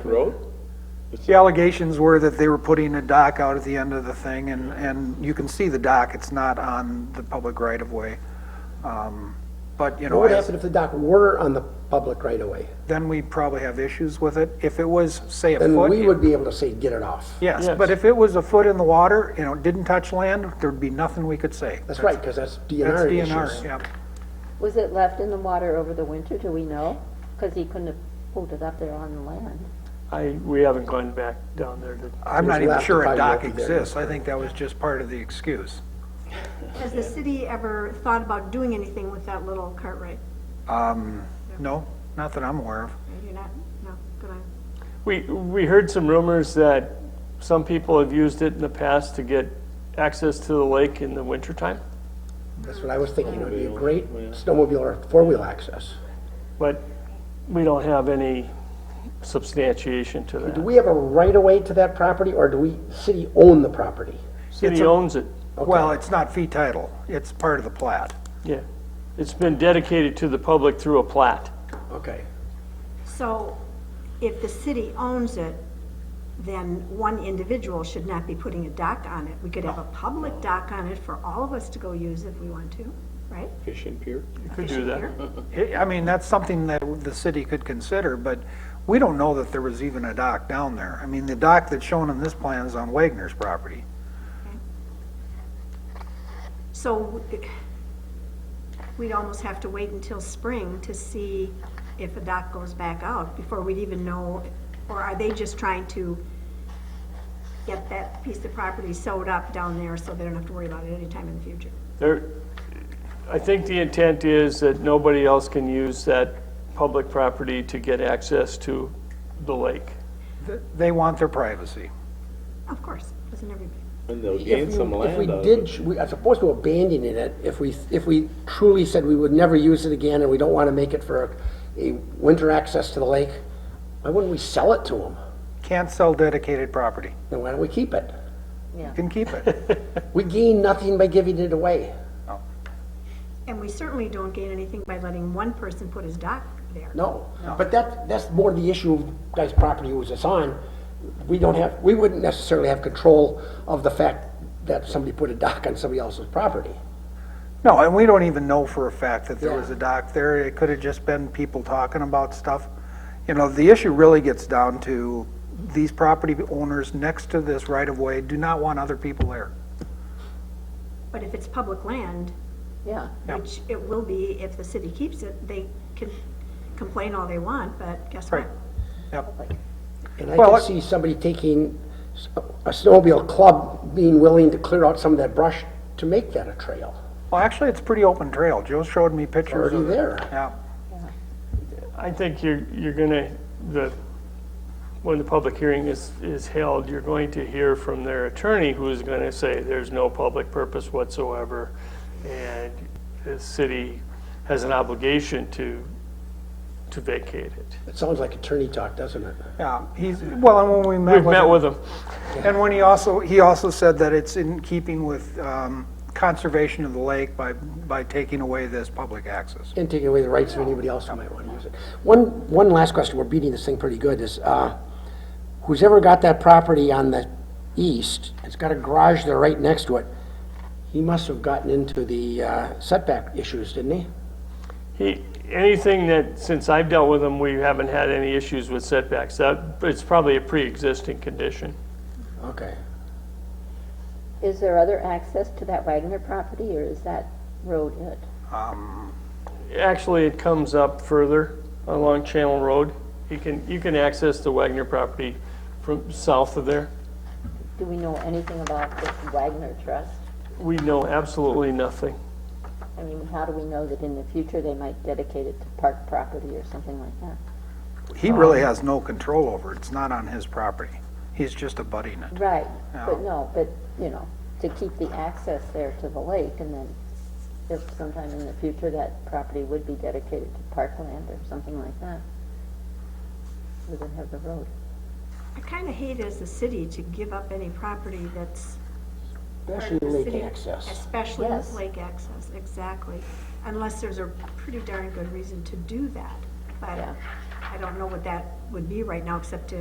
Road? The allegations were that they were putting a dock out at the end of the thing, and, and you can see the dock, it's not on the public right-of-way. Um, But, you What know, would I- happen if the dock were on the public right away? then we'd probably have issues with it. If it was, say, a Then foot. we would be able to say, get it off. Yes, Yes. but if it was a foot in the water, you know, didn't touch land, there'd be nothing we could say. That's right, because that's That's DNR issues. DNR, yep. Was it left in the water over the winter, do we know? Because he couldn't have pulled it up there on the land. I, we haven't gone back down there to, I'm not We'll even have to sure a find out dock if there is. exists. I think that was just part of the excuse. Has the city ever thought about doing anything with that little Cartwright? Um, no, not that I'm aware of. You're not, no, good eye. we, we heard some rumors that some people have used it in the past to get access to the lake in the wintertime. That's what I was thinking, it would be a great snowmobile or four-wheel access. But we don't have any substantiation to Do that. we have a right of way to that property, or do we, city own the property? It's City a- owns it, Well, it's not fee title. It's part of the plat. yeah. It's been dedicated to the public through a plat. Okay. So if the city owns it, then one individual should not be putting a dock on it. We could have a public dock on it for all of us to go use if we want to, right? Fishing pier? You could do that. I I mean, that's something that the city could consider, but we don't know that there was even a dock down there. I mean, the dock that's shown in this plan is on Wagner's property. So we'd almost have to wait until spring to see if a dock goes back out before we'd even know, or are they just trying to get that piece of property sewed up down there so they don't have to worry about it anytime in the future? There, I think the intent is that nobody else can use that public property to get access to the lake. Th- They want their privacy. Of course, doesn't everybody? And they'll If gain we- some if land we out of did, it. ch- we are supposed to abandon it if we, if we truly said we would never use it again, and we don't want to make it for a a winter access to the lake, why wouldn't we sell it to them? Can't sell dedicated property. Then why don't we keep it? You can keep it. We gain nothing by giving it away. And we certainly don't gain anything by letting one person put his dock there. No, but that, that's more the issue of guy's property was it's on. We don't have, we wouldn't necessarily have control of the fact that somebody put a dock on somebody else's property. No, and we don't even know for a fact that there Yeah. was a dock there. It could have just been people talking about stuff. You know, the issue really gets down to these property owners next to this right-of-way do not want other people there. But if it's public land, Yeah. Yeah. which it will be if the city keeps it, they can complain all they want, but guess what? Right. Yep. And I Well, can it- see somebody taking s- a snowmobile club being willing to clear out some of that brush to make that a trail. Well, actually, it's pretty open trail. Joe showed me pictures Already of it. there. Yeah. I think you're, you're gonna, the, when the public hearing is, is held, you're going to hear from their attorney who's gonna say there's no public purpose whatsoever. And the city has an obligation to, to vacate it. It sounds like attorney talk, doesn't it? Yeah, he's, well, and when we met We've with. met him- with them. And when he also, he also said that it's in keeping with um, conservation of the lake by, by taking away this public access. And taking away the rights of anybody else who might want to use it. One, one last question, we're beating this thing pretty good, is, uh, who's ever got that property on the east, it's got a garage there right next to it, he must have gotten into the uh, setback issues, didn't he? He, anything that, since I've dealt with them, we haven't had any issues with setbacks. That, it's probably a pre-existing condition. Okay. Is there other access to that Wagner property, or is that road it? Actually, it comes up further along Channel Road. You can, you can access the Wagner property from south of there. Do we know anything about this Wagner Trust? We know absolutely nothing. I mean, how do we know that in the future they might dedicate it to park property or something like that? He really Uh-huh. has no control over it. It's not on his property. He's just abutting it. Right, but No. no, but, you know, to keep the access there to the lake, and then if sometime in the future that property would be dedicated to parkland or something like that, we would have the road. I kind of hate as a city to give up any property that's part Especially of the lake city. access. Especially Yes. lake access, exactly. Unless there's a pretty darn good reason to do that. But Yeah. I don't know what that would be right now, except to